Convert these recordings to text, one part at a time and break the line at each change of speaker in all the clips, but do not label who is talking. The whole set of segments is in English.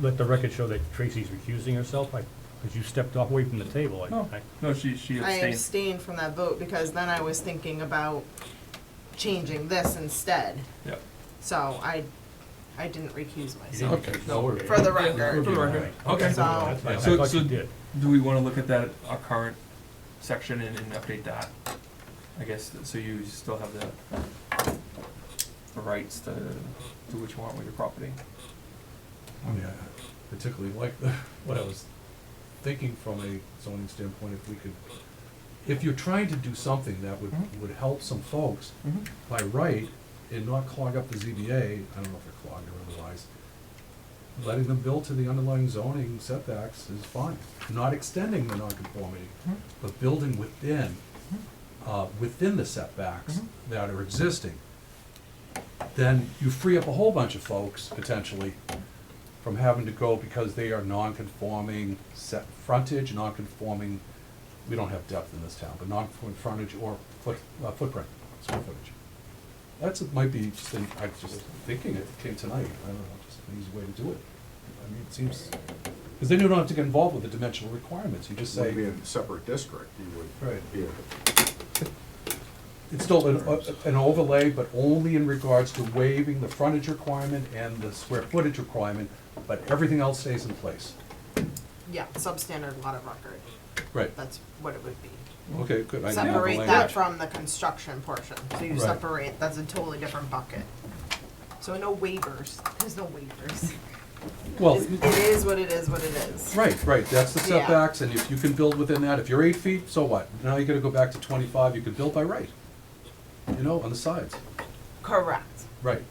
let the record show that Tracy's recusing herself, because you stepped off away from the table. I-
Oh.
No,
I-
no, she, she
I
abstained.
abstained from that vote because then I was thinking about changing this instead.
Yep.
So I, I didn't recuse
you didn't
myself.
Okay.
recuse. No worries.
For the
For
record,
the record.
Okay,
Okay.
that's fine. I
So-
thought you
so-
did.
Do we wanna look at that, our current section and, and update that? I guess, th- so you still have the the rights to do what you want with your property. Oh,
I mean, I Oh, particularly like the, what I was thinking from a zoning standpoint, if we could, if you're trying to do something that would,
Mhm.
would help some folks
Mm-hmm,
by right and not clog up the ZBA, I don't know if they're clogged or otherwise, letting them build to the underlying zoning setbacks is fine. Not extending the nonconformity,
Mhm.
but building within, uh, within the setbacks
Mhm.
that are existing. Then you free up a whole bunch of folks potentially from having to go because they are non-conforming set frontage, non-conforming, we don't have depth in this town, but non-conforming frontage or foot, uh, footprint, square footage. That's, it might be just, an- I was just thinking it came tonight, I don't know, just an easy way to do it. I mean, it seems, because then you don't have to get involved with the dimensional requirements, you just
would be
say,
in a separate district, you would
Right.
be,
it's still an, uh, an overlay, but only in regards to waiving the frontage requirement and the square footage requirement, but everything else stays in place.
yeah, substandard lot of record,
Right,
that's what it would be.
okay, good. I didn't have the
Separate that
language.
from the construction portion, so you
Right.
separate, that's a totally different bucket. So no waivers, there's no waivers.
Well,
It it is what it is, what it is.
right, right, that's the
Yeah.
setbacks, and if you can build within that, if you're eight feet, so what? Now you gotta go back to twenty-five, you could build by right. You know, on the sides,
Correct,
right.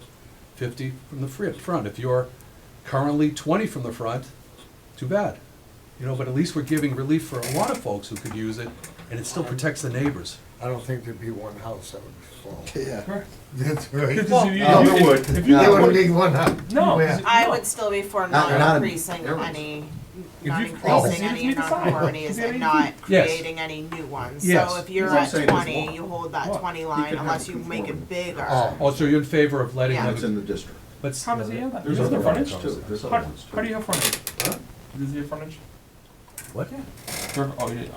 Fifty from the fri- front, if you're currently twenty from the front, too bad. You know, but at least we're giving relief for a lot of folks who could use it, and it still protects the neighbors.
I don't think there'd be one house that would fall.
yeah.
That's right.
Well,
No, there would.
If you
They
get
No.
wouldn't
one,
need one house.
no, 'cause
Yeah.
it-
I
no.
would still be for
Not-
not
not-
increasing
there was-
any,
If
not
you-
increasing
Oh.
any
You decide.
nonconformities
If you-
and not
Yes.
creating any new ones.
Yes.
So if you're
What I'm
at
saying is
twenty,
what-
you hold that
what?
twenty
You
line
can have
unless
it
you make it
conforming.
bigger.
Oh.
Oh, so you're in favor of letting
Yeah.
them,
It's in the district.
let's,
How does he have that?
There's
He doesn't
other
have frontage?
ones too, there's
How,
other ones
how do
too.
you have frontage?
Huh?
Does he have frontage?
what?
There- Oh, he, uh,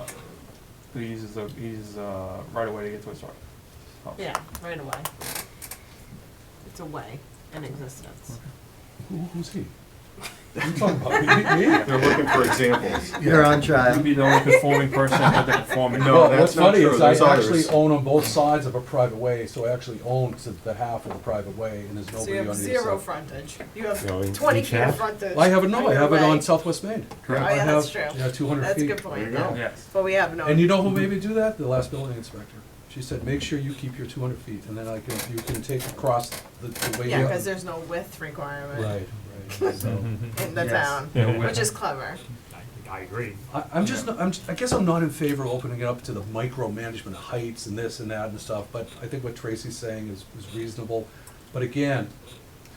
he uses a, he uses a right away to get to his truck. Oh.
Yeah, right away. It's a way in existence.
Who, who's he? You talking about me? Me?
They're looking for examples.
You're on
You'd
trial.
be the only conforming person at the conforming.
No.
Well,
that's
what's
not
funny
true.
is I
There's others.
actually own on both sides of a private way, so I actually own to the half of the private way, and there's
So you
nobody on either
have
side.
zero frontage. You
No, in
have twenty
each
feet of
half?
frontage.
Well, I haven't, no, I
your
have it
way.
on Southwest Maine.
Oh,
I
yeah, that's true.
have, Yeah, two hundred
That's a
feet.
good point,
There
yeah.
you
Yes.
But we have no.
And you know who made me do that? The last building inspector. She said, make sure you keep your two hundred feet, and then I can, you can take across the, the way.
Yeah,
you-
cause there's no width requirement
Right, right, so,
in the
Yes.
town,
Yeah, we-
which is clever.
I- I agree.
I, I'm just, not- I'm, I guess I'm not in favor of opening it up to the micromanagement of heights and this and that and stuff, but I think what Tracy's saying is, is reasonable. But again,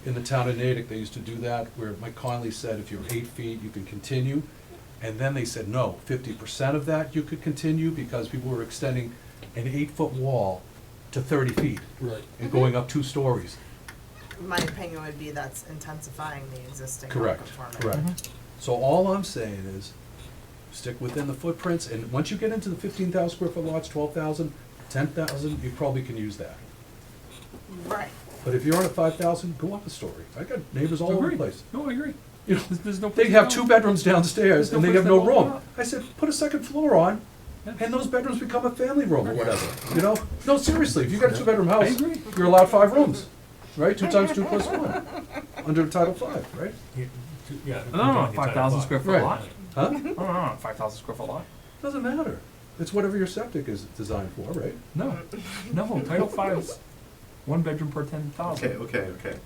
in the town of Natick, they used to do that, where Mike Conley said, if you're eight feet, you can continue. And then they said, no, fifty percent of that you could continue, because people were extending an eight-foot wall to thirty feet
Right.
and going up two stories.
My opinion would be that's intensifying the existing
Correct,
non-conformity.
correct. Mm-hmm. So all I'm saying is, stick within the footprints, and once you get into the fifteen thousand square foot lots, twelve thousand, ten thousand, you probably can use that.
Right.
But if you're on a five thousand, go up a story. I got neighbors all over the place.
No, I agree.
You know,
There's, there's no.
They
place
have
to
two
go.
bedrooms downstairs,
There's no
and they
place
have
to
no
open it
room.
up.
I said, put a second floor on,
Yeah.
and those bedrooms become a family room or whatever, you know? No, seriously, if you got a two-bedroom house,
agree.
you're allowed five rooms, right? Two times two plus one, under Title Five, right?
Yeah, two- yeah,
I don't know, five thousand square foot
Right.
lot.
Huh?
I don't know, five thousand square foot lot.
Doesn't matter. It's whatever your septic is designed for, right?
No, no, Title Five's one bedroom per ten thousand.
Okay, okay, okay.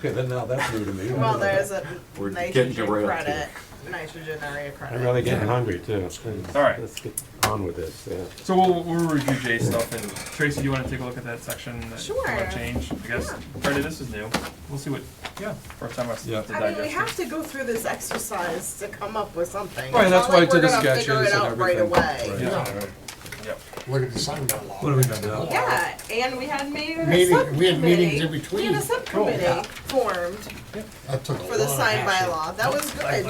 Okay, then now that's new to me.
Well, there's a
We're
nitrogen
getting derailed
credit, nitrogen area credit.
I'm really getting hungry too.
All right.
Let's get on with this, yeah.
So we'll, we'll review Jay's stuff and Tracy, you wanna take a look at that section that you
Sure.
wanna change? I guess, Brenda, this is new. We'll see what, yeah, first time I've
Yeah.
to
I mean, we
digest
have
it.
to go through this exercise to come up with something.
Right,
It's
that's
not
why I
like
did
we're
the
gonna
sketches
figure it
and
out right
everything.
away.
Right.
Yeah, yep.
Look at the sign down law.
What do we got now?
Yeah, and we had maybe a
Meeting- we had meetings in
subcommittee-
between.
We had a subcommittee
Oh, yeah.
formed
That took a
for the
lot of
sign by
hassle.
law. That was good.